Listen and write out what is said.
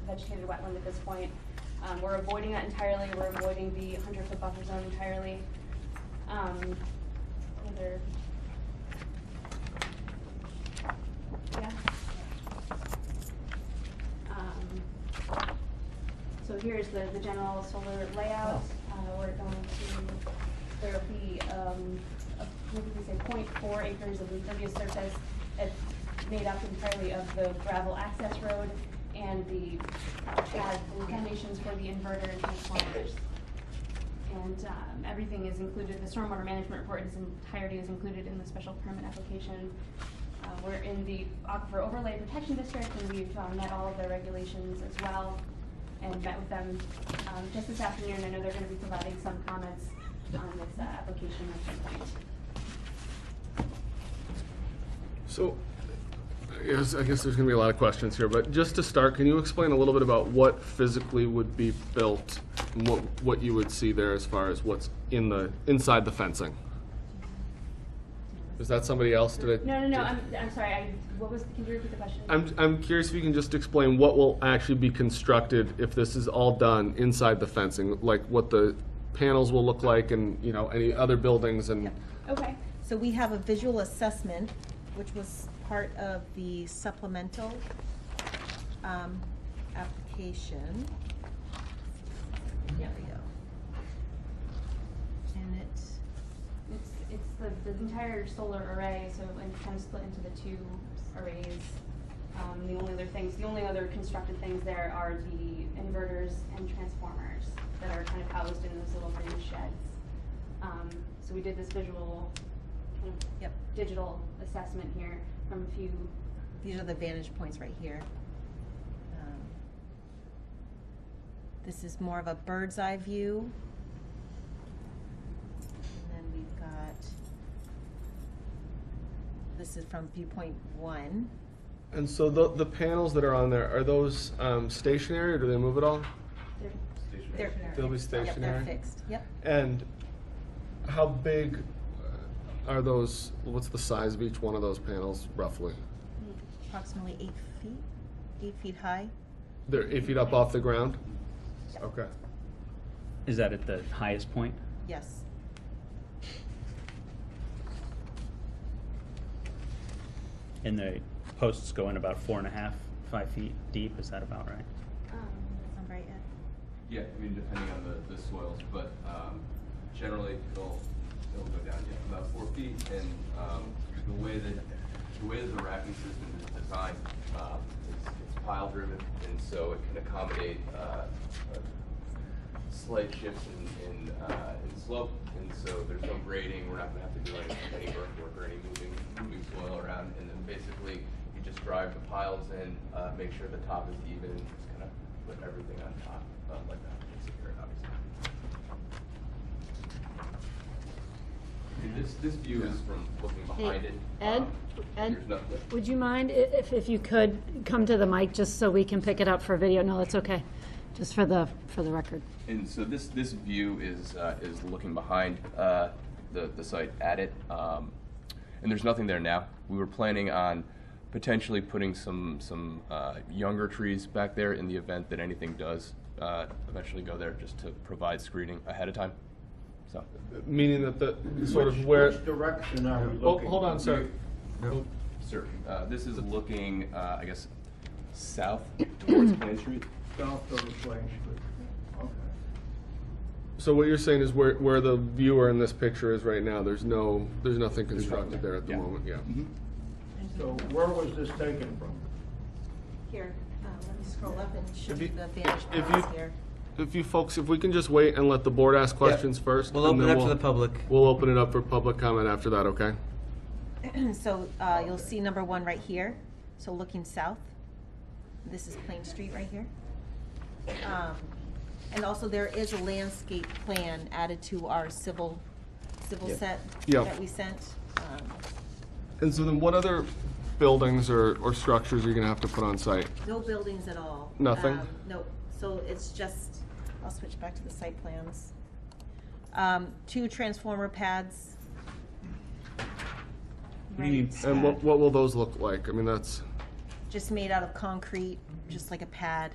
vegetated wetland at this point. Um, we're avoiding that entirely, we're avoiding the hundred foot buffer zone entirely. Um, other. Yeah. Um, so here's the, the general solar layout, uh, we're going to, there'll be, um, a- what did we say, 0.4 acres of impervious surface that's made up entirely of the gravel access road and the pad foundations for the inverter and transformers. And, um, everything is included, the stormwater management report in its entirety is included in the special permit application. Uh, we're in the aquifer overlay protection district and we've, um, met all of their regulations as well and met with them, um, just this afternoon. I know they're gonna be providing some comments on this, uh, application at some point. So, I guess, I guess there's gonna be a lot of questions here, but just to start, can you explain a little bit about what physically would be built? and What, what you would see there as far as what's in the, inside the fencing? Is that somebody else? Did I? No, no, no, I'm, I'm sorry, I, what was, can you repeat the question? I'm, I'm curious if you can just explain what will actually be constructed if this is all done inside the fencing? Like what the panels will look like and, you know, any other buildings and, Okay, So we have a visual assessment, which was part of the supplemental um, application. There we go. And it, it's, it's the, the entire solar array, so it's kind of split into the two arrays. Um, the only other things, the only other constructed things there are the inverters and transformers that are kind of housed in those little green sheds. Um, so we did this visual kind of yep, digital assessment here from a few, these are the vantage points right here. Um, This is more of a bird's eye view. And then we've got, this is from viewpoint one. and so the, the panels that are on there, are those um, stationary or do they move at all? they're They're. They'll be Yep, stationary. they're fixed, yep. And how big uh, are those, what's the size of each one of those panels roughly? Approximately eight feet, eight feet high. They're eight feet up off the ground? Okay. Is that at the highest point? Yes. And the posts go in about four and a half, five feet deep, is that about right? um, Sound right, Ed? Yeah, I mean, depending on the, the soils, but, um, generally, it'll, it'll go down, yeah, about four feet, and, um, the way that, the way that the racking system is designed, um, it's, it's pile driven, and so it can accommodate, uh, uh, slight shifts in, in, uh, in slope, and so there's no grading, we're not gonna have to do any, any earthwork or any moving, moving soil around, and then basically, you just drive the piles in, uh, make sure the top is even, and just kinda put everything on top, uh, like that, and secure it, obviously. And this, this view is from looking behind Hey, it. Ed, um, Ed, There's nothing. would you mind i- if, if you could come to the mic just so we can pick it up for video? No, that's okay, just for the, for the record. And so this, this view is, uh, is looking behind, uh, the, the site at it. Um, and there's nothing there now. We were planning on potentially putting some, some, uh, younger trees back there in the event that anything does, uh, eventually go there, just to provide screening ahead of time, so. Meaning that the, sort Which- of where, Which direction are we oh, looking? hold on, sir. Oh, Sir, uh, this is looking, uh, I guess, south towards Plain Street? South of Plain Street. Okay. So what you're saying is where, where the viewer in this picture is right now, there's no, there's nothing constructed there at the Yeah. moment, yeah. Mm-hmm. So where was this taken from? here. Um, Let me scroll up and show If you you- the vantage if points you- here. If you folks, if we can just wait and let the board ask questions first. We'll and open it then up to the public. We'll open it up for public comment after that, okay? So uh, you'll see number one right here, so looking south. This is Plain Street right here. Um, And also, there is a landscape plan added to our civil, civil Yeah. set Yeah. that we sent. Um, And so then what other buildings or, or structures are you gonna have to put on site? No buildings at all. Nothing? Um, Nope, so it's just, I'll switch back to the site plans. Um, two transformer pads. Right, And what, what will those look like? I mean, that's. just made out of concrete, just like a pad.